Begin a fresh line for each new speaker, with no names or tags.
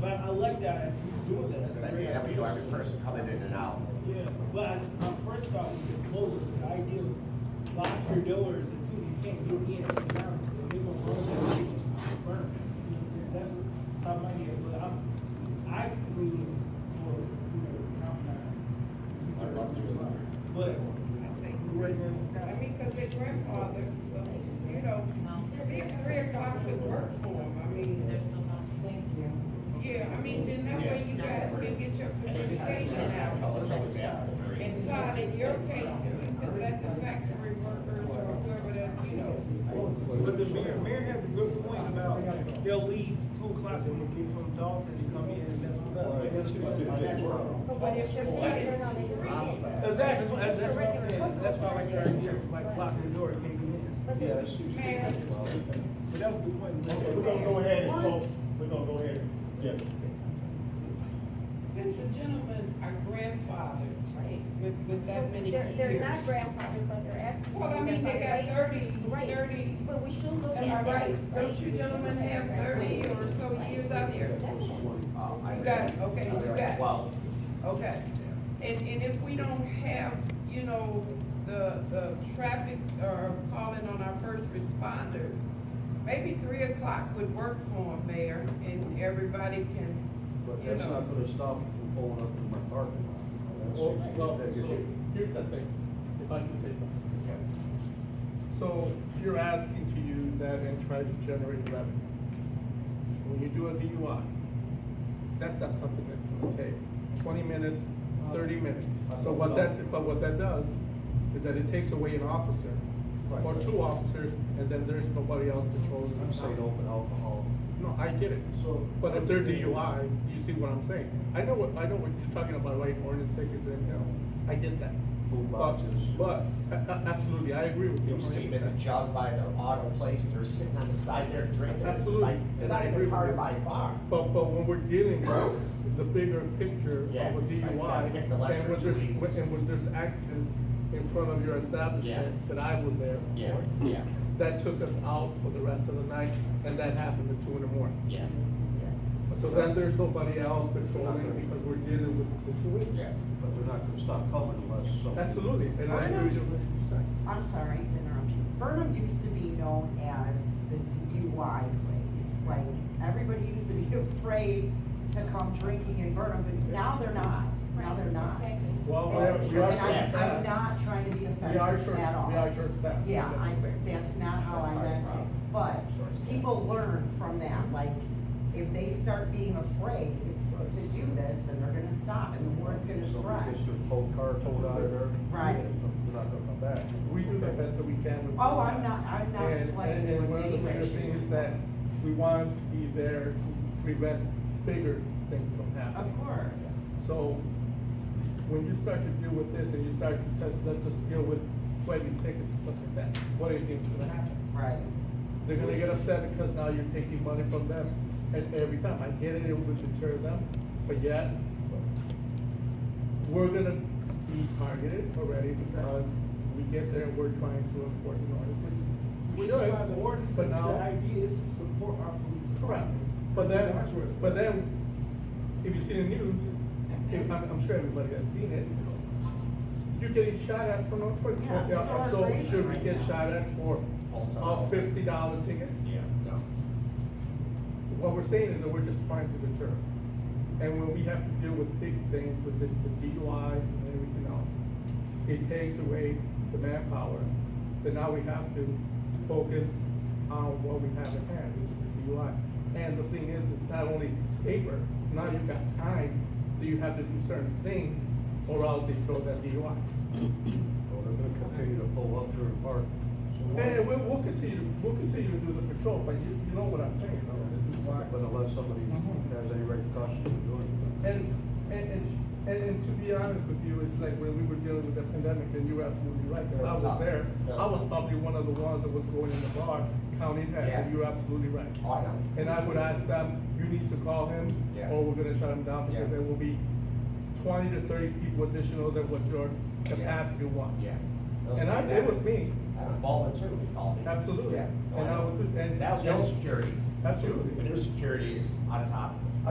But I like that idea of doing that. That's a
But
great
yeah, we know
idea.
every person coming in and out.
Yeah, but I- my first thought was to close the idea of lock your doors until you can't get in. and out. If they gonna roll that shit, I'm burning. That's how my idea, but I'm, I lean for, you know, I'm not.
I'd love to do that.
But I think right now,
I mean, because their grandfather, you know, three, three o'clock could work for them, I mean, yeah, I mean, then that way you guys can get your communication out.
Trouble, trouble, yeah.
And Todd, in your case, you could let the factory workers or whoever that, you know,
But the mayor, mayor has a good point about they'll leave two o'clock and they'll get from Dalton and come in and that's what us.
but if it's like three,
Exactly, that's what, that's what I'm saying, that's why I like your idea, like block the door, can't get in.
man,
But that was a good point.
Okay, we're gonna go ahead and close, we're gonna go ahead, yeah.
since the gentlemen are grandfathered with, with that many
They're,
years.
they're not grandfathered, but they're asking.
Well, I mean, they got thirty,
Right.
thirty,
But we should look at.
am I
that
right? Don't you gentlemen have thirty or so years out here?
Uh, I
You got it.
read-
Okay,
I
you
read
got it.
Twelve.
Okay, and, and if we don't have, you know, the, the traffic or calling on our first responders, maybe three o'clock would work for them, Mayor, and everybody can,
But
you
that's not
know.
gonna stop me from pulling up in my parking lot.
Well, well, so here's the thing, if I can say something. So you're asking to use that and try to generate revenue. When you do a DUI, that's not something that's gonna take twenty minutes, thirty minutes. So what that, but what that does is that it takes away an officer or
Right.
two officers, and then there's nobody else patrolling.
I'm saying open alcohol.
No, I get it.
So-
But if they're DUI, you see what I'm saying? I know what, I know what you're talking about, writing ordinance tickets and everything else. I get that.
Food
But,
boxes.
but, a- a- absolutely, I agree with you.
You see them in
100%.
the jug by the auto place, they're sitting on the side there drinking.
Absolutely.
Like, They're
And I
not
agree
even
with
part of
you.
my bar.
But, but when we're dealing with the bigger picture of
Yeah,
a
I- I
DUI,
get
and
the lesser
when
two
there's,
evils.
and when there's accidents in front of your establishment
Yeah.
that I was there
Yeah,
for,
yeah,
that took us out for the rest of the night, and that happened at two in the morning.
yeah,
So then there's nobody else patrolling because we're dealing with the situation.
yeah.
But they're not gonna stop coming unless something.
Absolutely, and I agree with you. 100%.
I'm sorry to interrupt you. Burnham used to be known as the DUI place. Like, everybody used to be afraid to come drinking in Burnham, but now they're not. Now they're not. And
Exactly.
Oh,
Well, we are,
I'm,
we are short
I'm
staffed.
not trying to be
We are
offensive
short,
at all.
we are short staffed.
Yeah, I, that's not how I meant it, but people learn from that, like, if they start being afraid to do this, then they're gonna stop and the word's gonna spread.
Somebody gets their whole car towed out of there.
Right.
They're not gonna come back.
We do the best that we can. with
Oh,
what
I'm
we have.
not- I'm not
And-
slighting
and-
you
And
in
one of the
any way,
bigger
shape,
things
or
is that we want to be there to prevent bigger things from
Of
happening.
course.
So when you start to deal with this and you start to, touch- let's just deal with waiving tickets and stuff like that, what do you think's gonna happen?
Right.
They're gonna get upset because now you're taking money from them, and every time, I get it, it would deter them, but yet, we're gonna be targeted already because we get there, we're trying to enforce an ordinance, which
We
is.
know about the ordinance,
But
the
now,
idea is to support our police.
correct, but then, but then, if you see the news, if, I'm, I'm sure everybody has seen it, you're getting shot at for no, for,
Yeah, people are
so
crazy
should we
right
get
now.
shot at for
Also.
a fifty dollar ticket?
Yeah, no.
What we're saying is that we're just trying to deter. And when we have to deal with big things, with the the DUIs and everything else, it takes away the manpower. Then now we have to focus on what we have at hand, which is the DUI. And the thing is, it's not only paper, now you've got time, that you have to do certain things, or else they throw that DUI.
Well, they're gonna continue to pull up through the park.
And we'll, we'll continue, we'll continue to do the patrol, but you, you know what I'm saying, though, this is why.
But unless somebody
Mm-hmm.
has any repercussions for doing it.
And, and, and, and, and to be honest with you, it's like when we were dealing with the pandemic, and you were absolutely right, because I was there. I was probably one of the ones that was going in the bar, counting heads, and you're absolutely right.
Oh, I know.
And I would ask them, you need to call him,
Yeah.
or we're gonna shut him down,
Yeah.
because there will be twenty to thirty people additional than what your
Yeah.
capacity wants.
Yeah. Those
And I,
people
it
that-
was me,
I was voluntarily called in.
Absolutely.
Yeah.
And I was- and-
That was
and-
no security.
Absolutely.
But their security is on top of